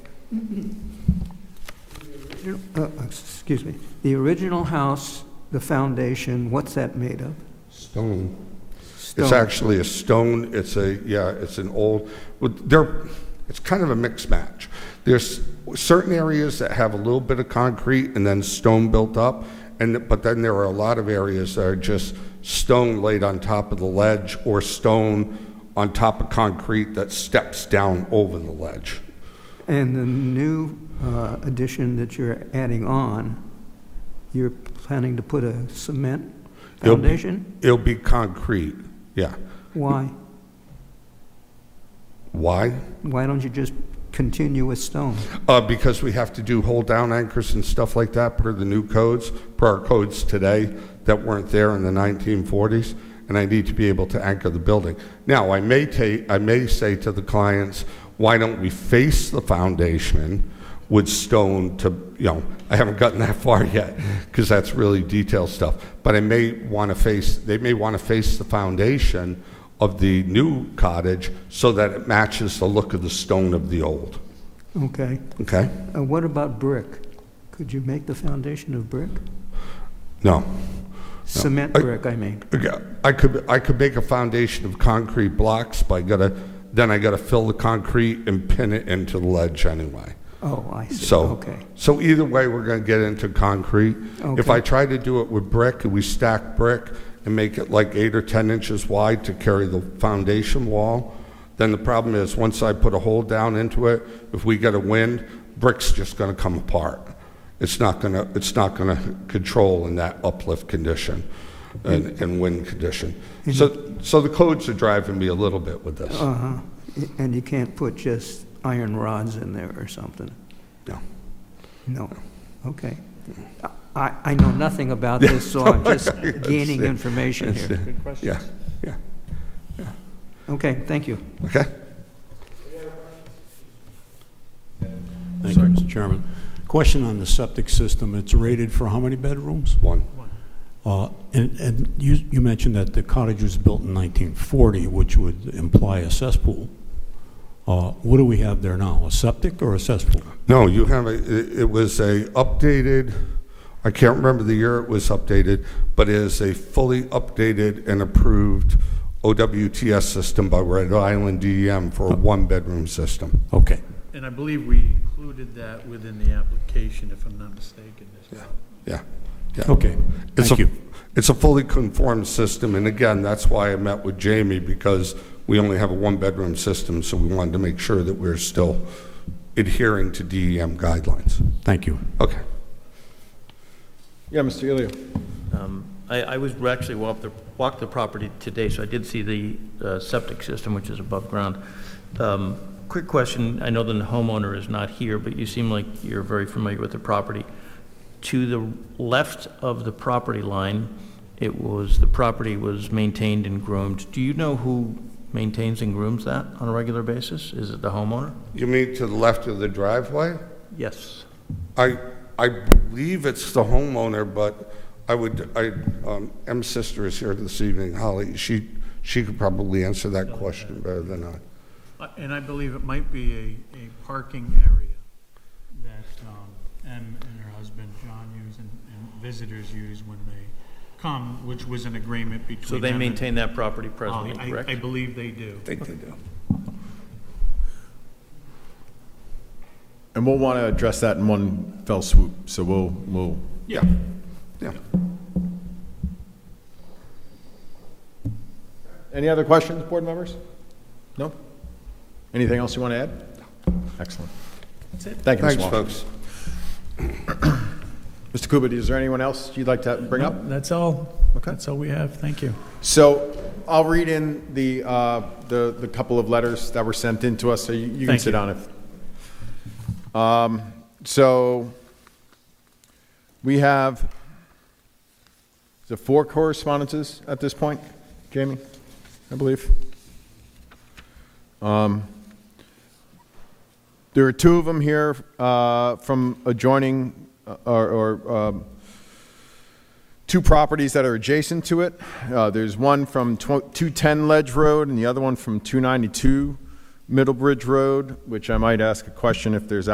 Uh, Excuse me. The original house, the foundation, what's that made of? Stone. It's Stone. actually a stone, it's a, yeah, it's an old, but they're, it's kind of a mixed match. There's certain areas that have a little bit of concrete and then stone built up, and, but then there are a lot of areas that are just stone laid on top of the ledge or stone on top of concrete that steps down over the ledge. And the new uh, addition that you're adding on, you're planning to put a cement It'll be- foundation? It'll be concrete, yeah. Why? Why? Why don't you just continue with stone? Uh, because we have to do hold down anchors and stuff like that per the new codes, per our codes today that weren't there in the 1940s, and I need to be able to anchor the building. Now, I may ta, I may say to the clients, why don't we face the foundation with stone to, you know, I haven't gotten that far yet, because that's really detailed stuff. But I may want to face, they may want to face the foundation of the new cottage so that it matches the look of the stone of the old, Okay. okay? Uh, What about brick? Could you make the foundation of brick? No. Cement I- brick, I mean. I could, I could make a foundation of concrete blocks, but I gotta, then I gotta fill the concrete and pin it into the ledge anyway. Oh, I see. So- Okay. So either way, we're gonna get into concrete. If Okay. I try to do it with brick, and we stack brick and make it like eight or 10 inches wide to carry the foundation wall, then the problem is, once I put a hole down into it, if we get a wind, brick's just gonna come apart. It's not gonna, it's not gonna control in that uplift condition and, Mm. and wind condition. Mm-hmm. So, so the codes are driving me a little bit with this. Uh-huh. And you can't put just iron rods in there or something? No. No, okay. I, I know nothing about this, so I'm just gaining information here. Good question. Yeah, yeah, Okay, thank you. okay? Thank you, Mr. Chairman. Question on the septic system, it's rated for how many bedrooms? One. Uh, And, and you, you mentioned that the cottage was built in 1940, which would imply a cesspool. Uh, What do we have there now, a septic or a cesspool? No, you have a, it- it was a updated, I can't remember the year it was updated, but it is a fully updated and approved OWTS system by Rhode Island DEM Oh. for a one-bedroom system. Okay, And I believe we included that within the application, if I'm not mistaken, as well. Yeah, yeah. okay, It's Oh, thank a- you. It's a fully conformed system, and again, that's why I met with Jamie, because we only have a one-bedroom system, so we wanted to make sure that we're still adhering to DEM guidelines. Thank you. Okay. Yeah, Mr. Ilio. Um, I, I was actually walked the, walked the property today, so I did see the uh, septic system, which is above ground. Um, Quick question, I know the homeowner is not here, but you seem like you're very familiar with the property. To the left of the property line, it was, the property was maintained and groomed. Do you know who maintains and grooms that on a regular basis? Is it the homeowner? You mean to the left of the driveway? Yes. I, I believe it's the homeowner, but I would, I, um, M's sister is here this evening, Holly. She, she could probably answer that question better than I. Uh, And I believe it might be a, a parking area that um, Em and her husband John use and and visitors use when they come, which was an agreement between So they them and- maintain that property Uh, presently, I, correct? I believe they do. think they do. And we'll want to address that in one fell swoop, so we'll, we'll, Yeah, yeah. any other questions, board members? No? Anything else you want to add? Excellent. That's it. Thank you, Mr. Thanks, Walker. folks. Mr. Kubit, is there anyone else you'd like to bring up? That's all. Okay. That's all we have. Thank you. So I'll read in the, uh, the, the couple of letters that were sent in to us, so you you can Thank sit you. down if. Um, So we have, is it four correspondences at this point, Jamie, I believe? Um, There are two of them here uh, from adjoining, uh, or, or um, two properties that are adjacent to it. Uh, There's one from tw- 210 Ledge Road and the other one from 292 Middlebridge Road, which I might ask a question if there's